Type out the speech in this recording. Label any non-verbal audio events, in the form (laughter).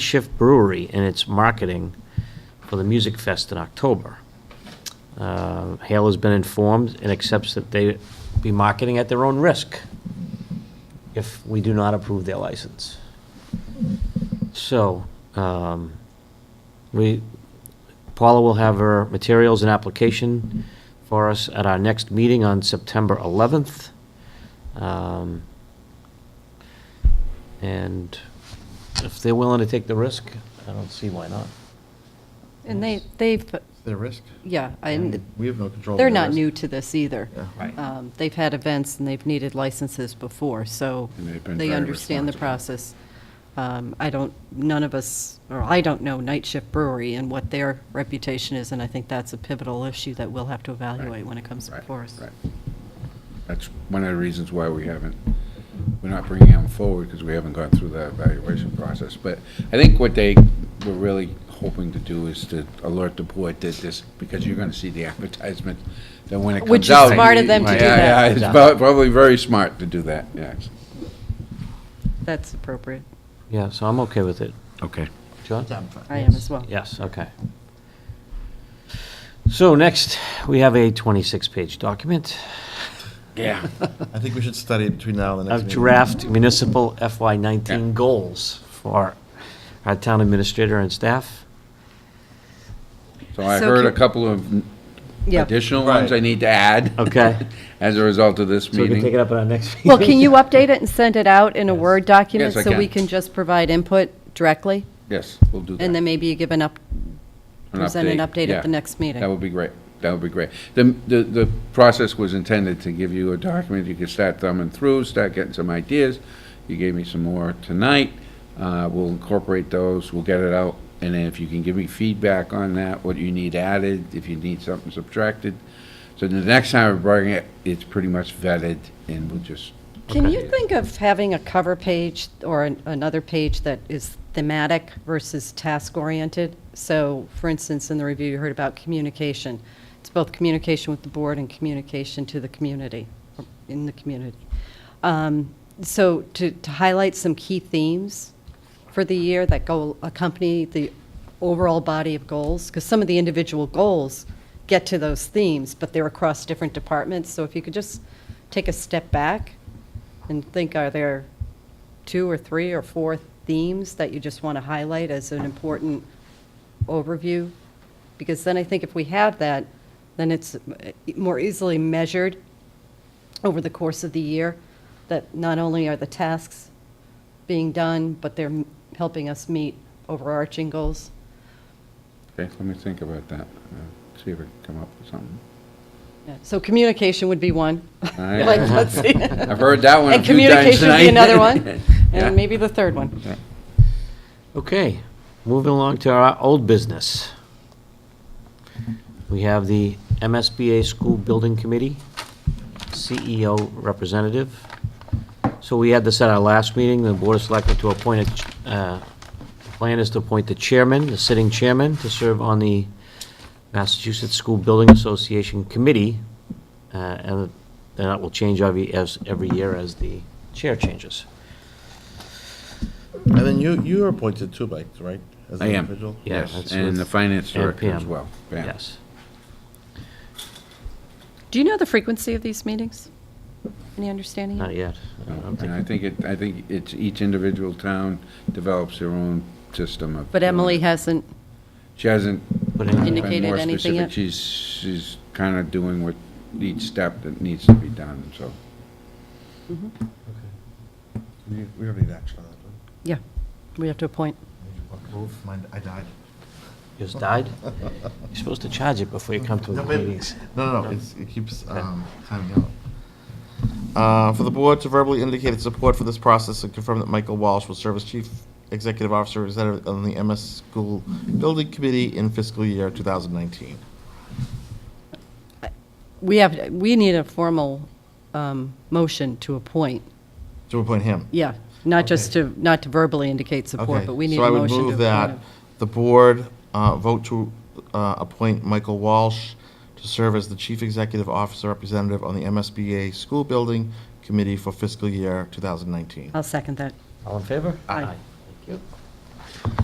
Shift Brewery in its marketing for the Music Fest in October. Uh, Hale has been informed and accepts that they be marketing at their own risk if we do not approve their license. So, um, we, Paula will have her materials and application for us at our next meeting on September 11th. Um, And if they're willing to take the risk, I don't see why not. And they, they've, Their risk? yeah, and We have no control. they're not new to this either. Yeah. Right. Um, They've had events and they've needed licenses before, so And they've been they very understand the responsible. process. Um, I don't, none of us, or I don't know Night Shift Brewery and what their reputation is, and I think that's a pivotal issue that we'll have to evaluate when it comes Right, before us. right. That's one of the reasons why we haven't, we're not bringing them forward, because we haven't gone through the evaluation process. But I think what they were really hoping to do is to alert the board that this, because you're gonna see the (laughs) advertisement, that when it Which is comes out. smart of them to do Yeah, that. Yeah, it's prob- probably very smart to do that, yes. That's appropriate. Yeah, so I'm okay with it. Okay. John? I am as well. Yes, okay. So next, we have a 26-page document (laughs) Yeah. I think we should study it between now and the next of meeting. draft municipal FY19 Yeah. goals for our town administrator and staff. So I So heard a can- couple of Yeah. additional ones Right. I need to add. Okay. (laughs) As a result of this So we can take meeting. it up at our next meeting. Well, can you update it and send it out in a Yes. Word document? Yes, I So we can. can just provide input directly? Yes, we'll do that. And then maybe you give an up, present an update yeah. at the next meeting? That would be great. That would be great. The, the, the process was intended to give you a document you could start thumbing through, start getting some ideas. You gave me some more tonight. Uh, we'll incorporate those, we'll get it out. And then if you can give me feedback on that, what you need added, if you need something subtracted. So the next time we bring it, it's pretty much vetted and we'll just. Can Okay. you think of having a cover page or an- another page that is thematic versus task-oriented? So, for instance, in the review, you heard about communication. It's both communication with the board and communication to the community, or in the community. Um, So to to highlight some key themes for the year that go accompany the overall body of goals, because some of the individual goals get to those themes, but they're across different departments. So if you could just take a step back and think, are there two or three or four themes that you just want to highlight as an important overview? Because then I think if we have that, then it's uh, more easily measured over the course of the year, that not only are the tasks being done, but they're m- helping us meet overarching goals. Okay, let me think about that. Uh, See if I can come up with something. Yeah, So communication would be one. All right. (laughs) Like, let's see. I've heard that one a And few times communication would be tonight. another one, (laughs) Yeah. and maybe the third one. Okay, moving along to our old business. We have the MSBA School Building Committee, CEO representative. So we had this at our last meeting, the Board of Selectmen to appoint, a ch- uh, the plan is to appoint the chairman, the sitting chairman, to serve on the Massachusetts School Building Association Committee, uh, and that will change every, as, every year as the chair changes. And then you, you are appointed too, Mike, right? As I an am, individual? Yeah, yes, that's and with- the finance And director as Pam, well. Pam. Yes. Do you know the frequency of these meetings? Any understanding? Not yet. I don't And think- I think it, I think it's each individual town develops their own system of. But doing Emily it. hasn't, She hasn't. Put in- been Indicated more anything specific. yet? She's, she's kind of doing what, each step that needs to be done, so. We we already need action on that. yeah, we have to appoint. Move. Mine, I died. It's died? You're supposed to charge it before you come to the No, wait. meetings. No, no, no, it's, it keeps, um, timing out. Uh, for the board to verbally indicate its support for this process and confirm that Michael Walsh will serve as chief executive officer representative on the MS School Building Committee in fiscal year 2019. We have, we need a formal um, motion to appoint, To appoint him. yeah, not just Okay. to, not to verbally indicate support, Okay, but we need a motion to So I would appoint. move that him. the board uh, vote to uh, appoint Michael Walsh to serve as the Chief Executive Officer Representative on the MSBA School Building Committee for fiscal year 2019. I'll second that. All in favor? Aye. Thank you.